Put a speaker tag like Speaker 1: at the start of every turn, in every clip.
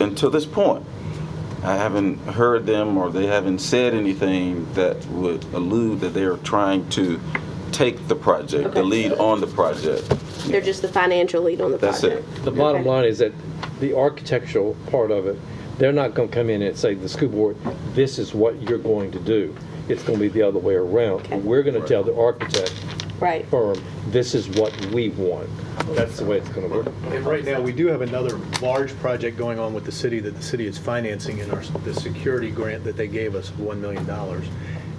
Speaker 1: until this point, I haven't heard them or they haven't said anything that would allude that they are trying to take the project, the
Speaker 2: Okay.
Speaker 1: lead on the project.
Speaker 2: They're just the financial lead on the
Speaker 1: That's
Speaker 2: project.
Speaker 1: it.
Speaker 3: The bottom
Speaker 2: Okay.
Speaker 3: line is that the architectural part of it, they're not going to come in and say, the school board, this is what you're going to do. It's going to be the other way around.
Speaker 2: Okay.
Speaker 3: We're going to tell the architect
Speaker 2: Right.
Speaker 3: firm, this is what we want. That's the way it's going to work.
Speaker 4: And right now, we do have another large project going on with the city that the city is financing in our, the security grant that they gave us, of $1 million.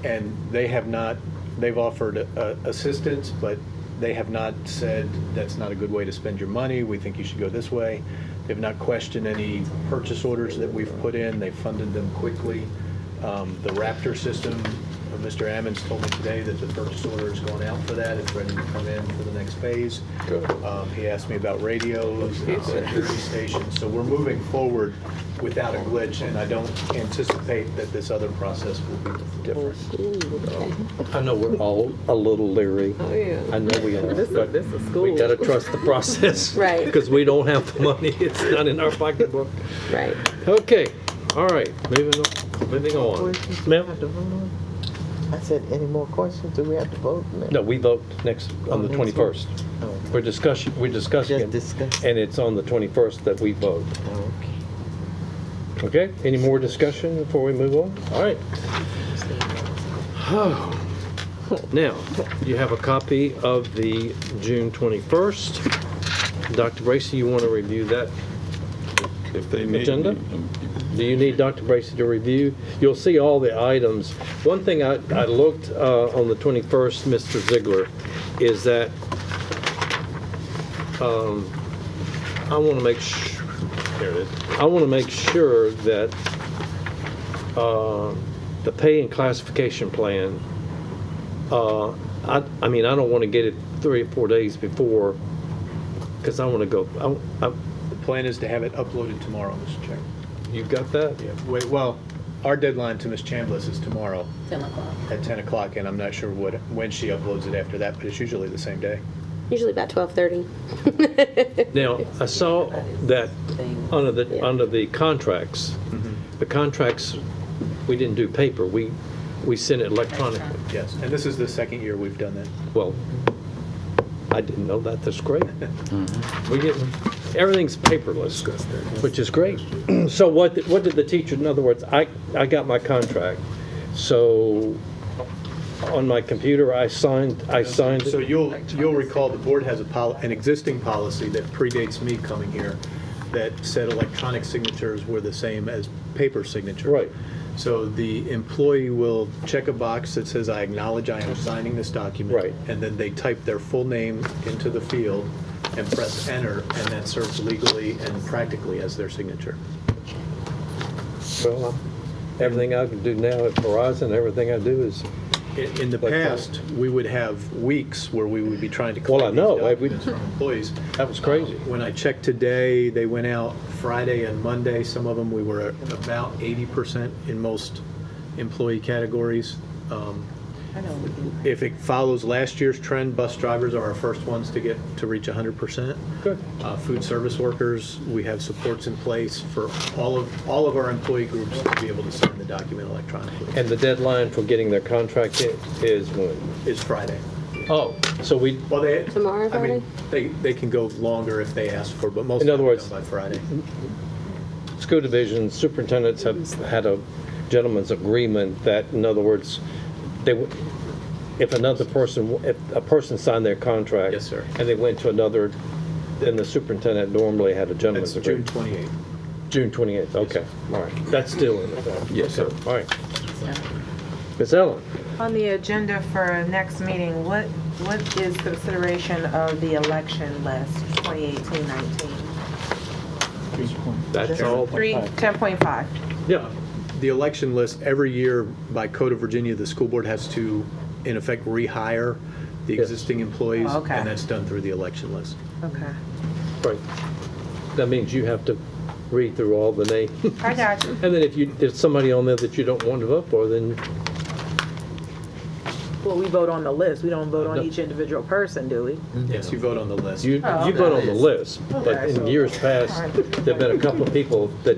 Speaker 4: And they have not, they've offered uh, assistance, but they have not said, that's not a good way to spend your money, we think you should go this way. They've not questioned any purchase orders that we've put in, they funded them quickly. Um, The Raptor system, uh, Mr. Ammons told me today that the purchase order is going out for that, it's ready to come in for the next phase. Um, He asked me about radios, and security stations, so we're moving forward without a glitch, and I don't anticipate that this other process will be different.
Speaker 3: I know we're all a little leery.
Speaker 5: Oh, yeah.
Speaker 3: I know we are,
Speaker 5: This is-
Speaker 3: but
Speaker 5: this is
Speaker 3: we
Speaker 5: school.
Speaker 3: got to trust the process.
Speaker 2: Right.
Speaker 3: Because we don't have the money. It's not in our pocketbook.
Speaker 2: Right.
Speaker 3: Okay, all right, moving on, moving on. Ma'am?
Speaker 6: I said, any more questions? Do we have to vote?
Speaker 3: No, we vote next, on the
Speaker 6: Oh, next one.
Speaker 3: 21st.
Speaker 6: "Oh,
Speaker 3: We're discussing, we're discussing
Speaker 6: Just
Speaker 3: it,
Speaker 6: discuss.
Speaker 3: and it's on the 21st that we vote.
Speaker 6: Okay.
Speaker 3: Okay, any more discussion before we move on? All right. Now, you have a copy of the June 21st. Dr. Bracy, you want to review that?
Speaker 1: If they need
Speaker 3: Agenda?
Speaker 1: me.
Speaker 3: Do you need Dr. Bracy to review? You'll see all the items. One thing I, I looked uh, on the 21st, Mr. Ziegler, is that um, I want to make sure, there it is. I want to make sure that uh, the pay and classification plan, uh, I, I mean, I don't want to get it three or four days before, because I want to go, I- I-
Speaker 4: The plan is to have it uploaded tomorrow, Mr. Chairman.
Speaker 3: you got that?
Speaker 4: Yeah, wait, well, our deadline to Ms. Chambliss is tomorrow
Speaker 7: 10 o'clock.
Speaker 4: at 10 o'clock, and I'm not sure what, when she uploads it after that, but it's usually the same day.
Speaker 2: Usually about 12:30.
Speaker 3: Now, I saw that under the,
Speaker 2: Yeah.
Speaker 3: under the contracts, the contracts, we didn't do paper, we, we sent it electronically.
Speaker 4: Yes, and this is the second year we've done that.
Speaker 3: Well, I didn't know that, that's great. We get, everything's paperless, which is great. So what, did- what did the teacher, in other words, I, I got my contract, so on my computer, I signed, I signed
Speaker 4: So
Speaker 3: it.
Speaker 4: you'll, you'll recall the board has a pol, an existing policy that predates me coming here that said electronic signatures were the same as paper signatures.
Speaker 3: Right.
Speaker 4: So the employee will check a box that says, I acknowledge I am signing this document.
Speaker 3: Right.
Speaker 4: And then they type their full name into the field and press enter, and that serves legally and practically as their signature.
Speaker 3: Well, Everything I can do now at Verizon, everything I do is
Speaker 4: In in the
Speaker 3: Like that.
Speaker 4: past, we would have weeks where we would be trying to
Speaker 3: Well, I
Speaker 4: collect these
Speaker 3: know. I- we-
Speaker 4: documents from employees.
Speaker 3: That was crazy.
Speaker 4: When I checked today, they went out Friday and Monday. Some of them, we were at about 80% in most employee categories. Um, If it follows last year's trend, bus drivers are our first ones to get, to reach 100%.
Speaker 3: Good.
Speaker 4: Uh, Food service workers, we have supports in place for all of, all of our employee groups to be able to sign the document electronically.
Speaker 3: And the deadline for getting their contract i- is when?
Speaker 4: It's Friday.
Speaker 3: Oh, so we,
Speaker 4: Well, they.
Speaker 2: Tomorrow,
Speaker 4: I mean, They, they can go longer if they ask for, but most
Speaker 3: In
Speaker 4: of
Speaker 3: other
Speaker 4: them are
Speaker 3: words-
Speaker 4: done by Friday.
Speaker 3: school division superintendents have had a gentleman's agreement that, in other words, they, w- if another person, w- if a person signed their contract.
Speaker 4: Yes, sir.
Speaker 3: And they went to another, then the superintendent normally had a
Speaker 4: That's
Speaker 3: gentleman's
Speaker 4: June
Speaker 3: agreement.
Speaker 4: 28th.
Speaker 3: June 28th, okay, all right. That's still in effect.
Speaker 1: Yes, sir.
Speaker 3: All right. Ms. Ellen?
Speaker 5: On the agenda for next meeting, what, what is consideration of the election list 2018-19?
Speaker 3: That's all?
Speaker 5: Three, 10.5.
Speaker 3: Yeah.
Speaker 4: The election list, every year by Code of Virginia, the school board has to, in effect, rehire the
Speaker 3: Yes.
Speaker 4: existing employees.
Speaker 5: Oh, okay.
Speaker 4: And that's done through the election list.
Speaker 5: Okay.
Speaker 3: Right. That means you have to read through all the names.
Speaker 5: I got you.
Speaker 3: And then if you, there's somebody on there that you don't want to vote for, then,
Speaker 8: Well, we vote on the list. We don't vote on each individual person, do we?
Speaker 4: Yes, Mm-hmm. you vote on the list.
Speaker 5: Oh,
Speaker 3: you, you vote on the list. But
Speaker 8: Okay,
Speaker 3: in
Speaker 8: so-
Speaker 3: years past, there've been a couple of people that